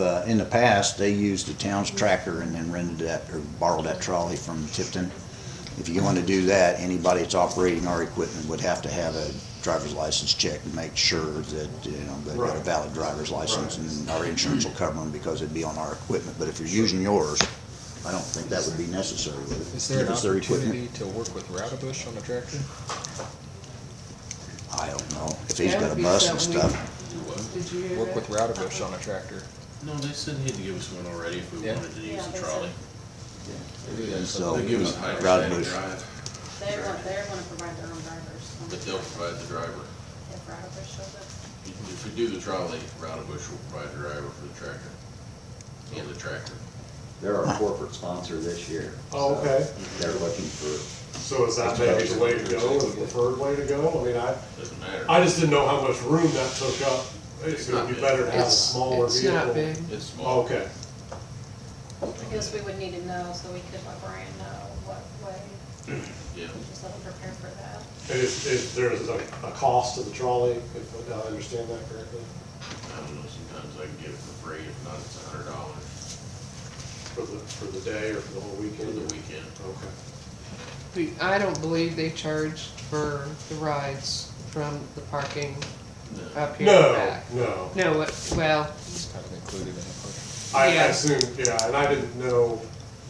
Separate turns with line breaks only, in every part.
uh, in the past, they used the town's tracker and then rented that or borrowed that trolley from Tipton. If you want to do that, anybody that's operating our equipment would have to have a driver's license check to make sure that, you know, they've got a
Right.
valid driver's license
Right.
and our insurance will cover them because it'd be on our equipment. But if you're using yours, I don't think that would be necessary with it.
Is there
If
an
it's their equipment.
opportunity to work with Routabush on the tractor?
I don't know. If he's
That
got
would
a
be
bus and
something we-
stuff,
Did you hear
Work with
that?
Routabush on a tractor?
No, they said he had to give us one already if we
Yeah.
wanted to use
Yeah,
the
they
trolley.
and so, uh,
They give us
Rod
a higher
Bush,
drive,
They're, gonna- they're gonna provide their own drivers.
but they'll provide the driver.
If Routabush shows up.
If we do the trolley, Rowdy Bush will provide the driver for the tractor. And the tractor.
They're our corporate sponsor this year.
Oh, okay.
So They're looking for,
So is that maybe the way to go, or the preferred way to go? I mean, I,
Doesn't matter.
I just didn't know how much room that took up. It's
It's
gonna
not
be
big.
better to have a
It's-
smaller
it's
vehicle.
not big.
It's small.
Okay,
I guess we would need to know, so we could let Brian know what way,
Yeah.
just let him prepare for that.
and if, if there's a, a cost to the trolley, if, did I understand that correctly?
I don't know, sometimes I can get it for free, if not, it's a hundred dollars
For the, for the day or for the whole
for
weekend?
the weekend.
Okay.
The- I don't believe they charged for the rides from the parking
No.
up here and
No,
back.
no.
No, it- well,
It's kind of included in the park.
I, I
Yeah.
assumed, yeah, and I didn't know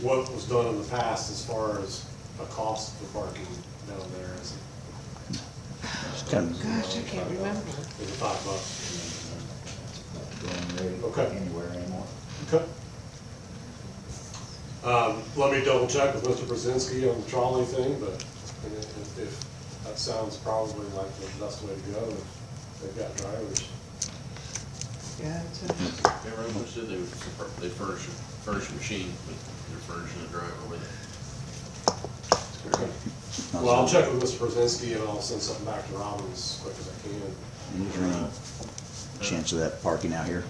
what was done in the past as far as a cost for parking down there. Is it-
it's kind of
gosh, I can't remember.
is it five bucks?
not
Okay.
going anywhere anymore.
Okay. Um, let me double check with Mr. Brzezinski on the trolley thing, but I mean, if, if, that sounds probably like the best way to go, if they've got drivers.
Yeah, it's a-
Everyone Bush said they would, supp- they furnish, furnish a machine, but they're furnishing the driver with it.
Well, I'll check with Mr. Brzezinski and I'll send something back to Robin as quick as I can.
And is there any chance of that parking out here?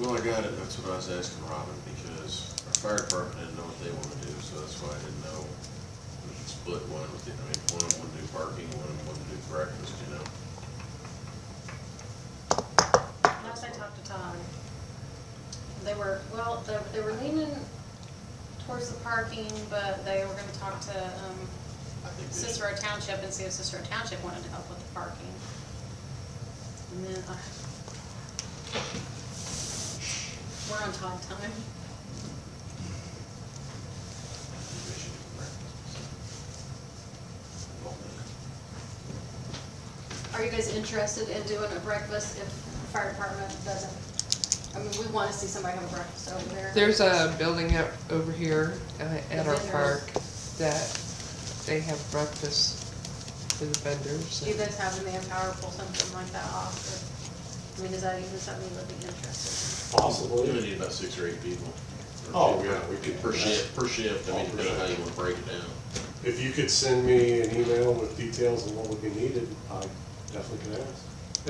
Well, I got it, that's what I was asking Robin, because our fire department didn't know what they wanna do, so that's why I didn't know. We could split one with, the- I mean, one would do parking, one would do breakfast, you know?
And also I talked to Tom. They were, well, they, they were leaning towards the parking, but they were gonna talk to, um,
I think they should-
Cicero Township and see if Cicero Township wanted to help with the parking. And then, uh, we're on Todd time.
they should do breakfast. Well,
Are you guys interested in doing a breakfast if the fire department doesn't? I mean, we want to see somebody have a breakfast over there.
There's a building up over here uh, at our
The vendors.
park that they have breakfast for the vendors.
Do you guys have the manpower to pull something like that off? or- I mean, is that even something you would be interested
We only
Possibly.
need about six or eight people.
Oh, yeah, we could-
Per shift, per shift, I mean, depending on how you wanna break it down.
If you could send me an email with details on what would be needed, I definitely could ask.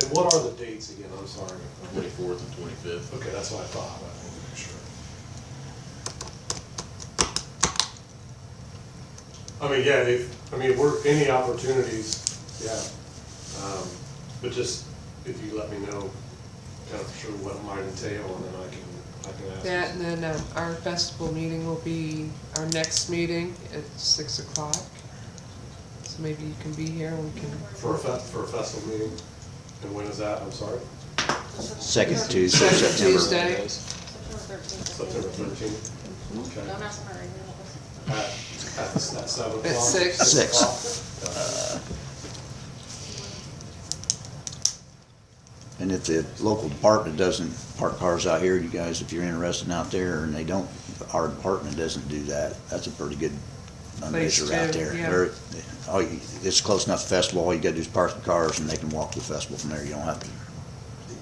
And what are the dates again? I'm sorry.
Twenty-fourth and twenty-fifth.
Okay, that's what I thought. I wanted to make sure. I mean, yeah, if, I mean, we're, any opportunities, yeah. Um, But just, if you let me know, kind of sure what it might entail, and then I can, I can ask.
That, and then um, our festival meeting will be, our next meeting at six o'clock. So maybe you can be here, and we can,
For a fest, for a festival meeting, and when is that, I'm sorry,
Second Tuesday, September.
Second Tuesday.
in? September thirteenth.
September thirteenth? Okay.
Don't ask my renewals.
At, at the, s- at seven
At
o'clock?
six.
Six.
o'clock?
And if the local department doesn't park cars out here, you guys, if you're interested out there, and they don't, our department doesn't do that, that's a pretty good
Place
fundraiser out
to,
there.
yeah.
Very- all you- it's close enough to festival, all you gotta do is park the cars and they can walk to the festival from there, you don't have to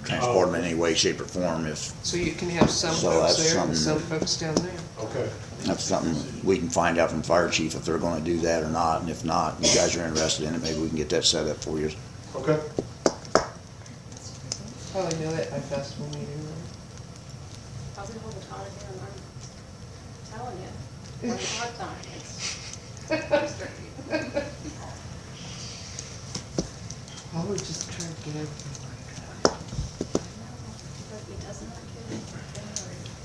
transport them in any way, shape or form if,
so you can have some
So
folks
that's
there and some
something-
folks down there.
Okay,
that's something we can find out from fire chief if they're gonna do that or not, and if not, you guys are interested in it, maybe we can get that set up for you.
okay.
Probably Oh, know that by festival meeting, right?
I'll be holding Todd here, and I'm telling you, one o'clock time, it's. it's tricky.
I would just try to get everything.